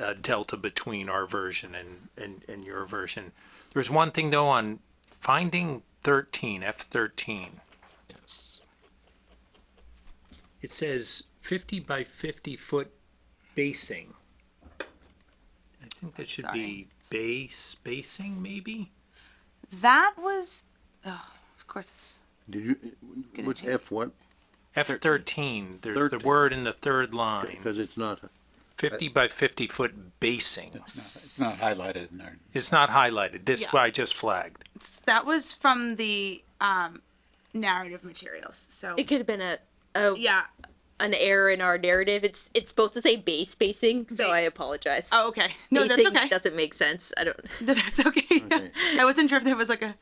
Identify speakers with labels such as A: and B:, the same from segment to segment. A: uh, delta between our version and, and, and your version. There's one thing though on finding 13, F13.
B: Yes.
A: It says 50 by 50 foot basing. I think that should be base spacing, maybe?
C: That was, oh, of course.
D: Did you,
C: Gonna
D: what's
C: take-
D: F what?
A: F13. There's the
D: 13.
A: word in the third line.
D: Because it's not,
A: 50 by 50 foot basing.
E: It's not highlighted in there.
A: It's not highlighted. This
C: Yeah.
A: what I just flagged.
C: It's, that was from the um, narrative materials. So
F: It could have been a, a
C: yeah.
F: an error in our narrative. It's it's supposed to say base spacing, so
C: Ba-
F: I apologize.
C: Oh, okay. No, that's
F: Basing
C: okay.
F: Doesn't make sense. I don't.
C: No, that's okay. I wasn't sure if there was like a.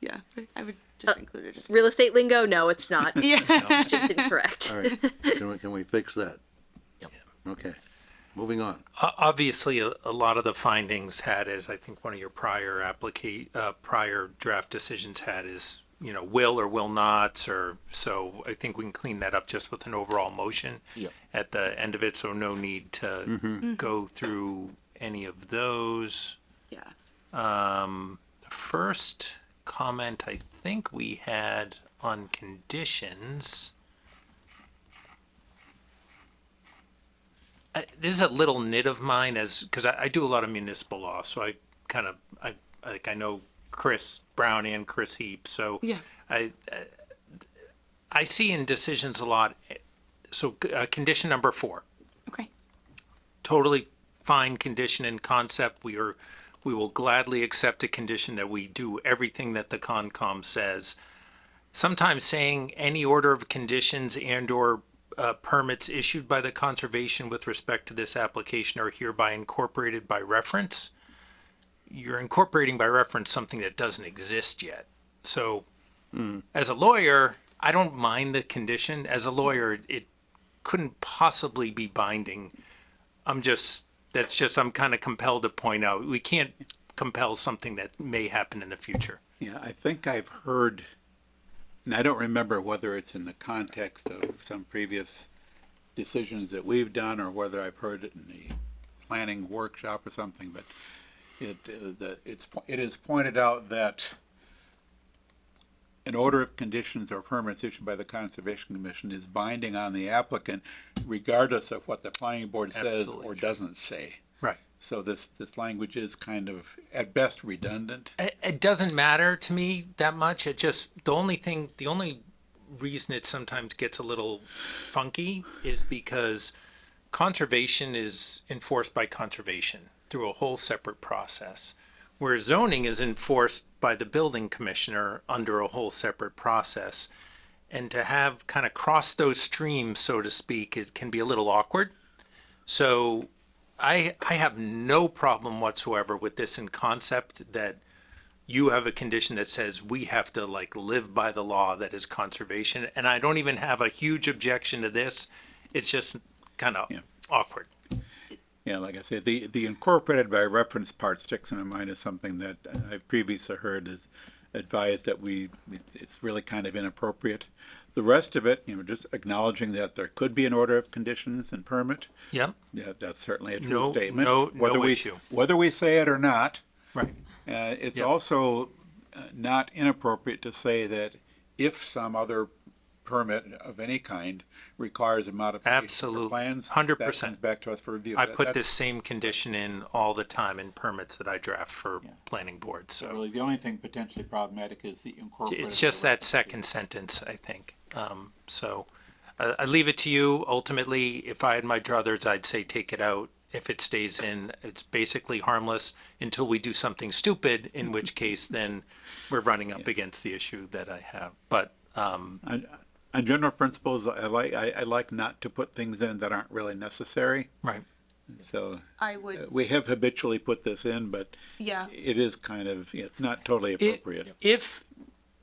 C: Yeah, I would just include it. Just
F: Real estate lingo? No, it's not. It's
C: yeah.
F: just incorrect.
D: all right, can we, can we fix that?
B: Yep.
D: Okay, moving on.
A: O- Obviously, a, a lot of the findings had, as I think one of your prior applica- uh, prior draft decisions had, is you know will or will nots, or so. I think we can clean that up just with an overall motion
B: Yep.
A: at the end of it. So no need to go through any of those.
C: yeah.
A: The Um, first comment I think we had on conditions. I, this is a little nit of mine as because I, I do a lot of municipal law, so I kind of I like I know Chris Brown and Chris Heap, so
C: Yeah.
A: I I, I see in decisions a lot. eh, So uh, condition number four
C: Okay.
A: totally fine condition and concept. We are, we will gladly accept a condition that we do everything that the Concom says. Sometimes saying any order of conditions and or uh, permits issued by the conservation with respect to this application are hereby incorporated by reference. You're incorporating by reference something that doesn't exist yet. So as a lawyer, I don't mind the condition. As a lawyer, it couldn't possibly be binding. I'm just, that's just, I'm kind of compelled to point out, we can't compel something that may happen in the future.
E: Yeah, I think I've heard, and I don't remember whether it's in the context of some previous decisions that we've done or whether I've heard it in the planning workshop or something, but it, uh, the, it's, po- it is pointed out that an order of conditions or permits issued by the Conservation Commission is binding on the applicant regardless of what the planning board says
A: Absolutely
E: or doesn't say.
A: Right.
E: So this, this language is kind of, at best redundant.
A: It, it doesn't matter to me that much. It just, the only thing, the only reason it sometimes gets a little funky is because conservation is enforced by conservation through a whole separate process. Where zoning is enforced by the building commissioner under a whole separate process. And to have kind of cross those streams, so to speak, it can be a little awkward. So I, I have no problem whatsoever with this in concept that you have a condition that says we have to like live by the law that is conservation. And I don't even have a huge objection to this. It's just kind of
E: Yeah.
A: awkward.
E: Yeah, like I said, the, the incorporated by reference part sticks in my mind as something that I've previously heard is advised that we, it's- it's really kind of inappropriate. The rest of it, you know, just acknowledging that there could be an order of conditions and permit,
A: Yep.
E: yeah, that's certainly a
A: No-
E: true statement.
A: no- no
E: Whether we-
A: issue.
E: Whether we say it or not,
A: Right.
E: uh, it's
A: Yeah.
E: also uh, not inappropriate to say that if some other permit of any kind requires a modification of
A: Absolute.
E: plans,
A: 100%.
E: that comes back to us for review.
A: I
E: That-
A: put
E: that's-
A: this same condition in all the time in permits that I draft for planning boards.
E: So
A: So
E: really, the only thing potentially problematic is the incorporated.
A: it's just that second sentence, I think. Um, so I, I leave it to you. Ultimately, if I had my druthers, I'd say take it out. If it stays in, it's basically harmless until we do something stupid, in which case then we're running up against the issue that I have. But um,
E: On on uh, general principles, I like, I, I like not to put things in that aren't really necessary.
A: right,
E: So
C: I
E: uh,
C: would.
E: we have habitually put this in, but
C: Yeah.
E: it is kind of, it's not totally
A: It-
E: appropriate.
A: If,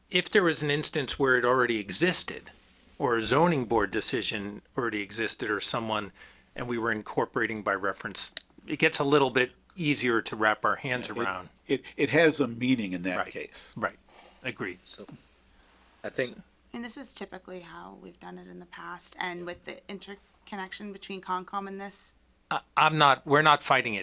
A: if there was an instance where it already existed, or a zoning board decision already existed, or someone, and we were incorporating by reference, it gets a little bit easier to wrap our hands around.
E: It, it has a meaning in that
A: Right.
E: case.
A: Right, agreed.
B: I think
C: And this is typically how we've done it in the past, and with the interconnection between Concom and this,
A: I'm not, we're not fighting it.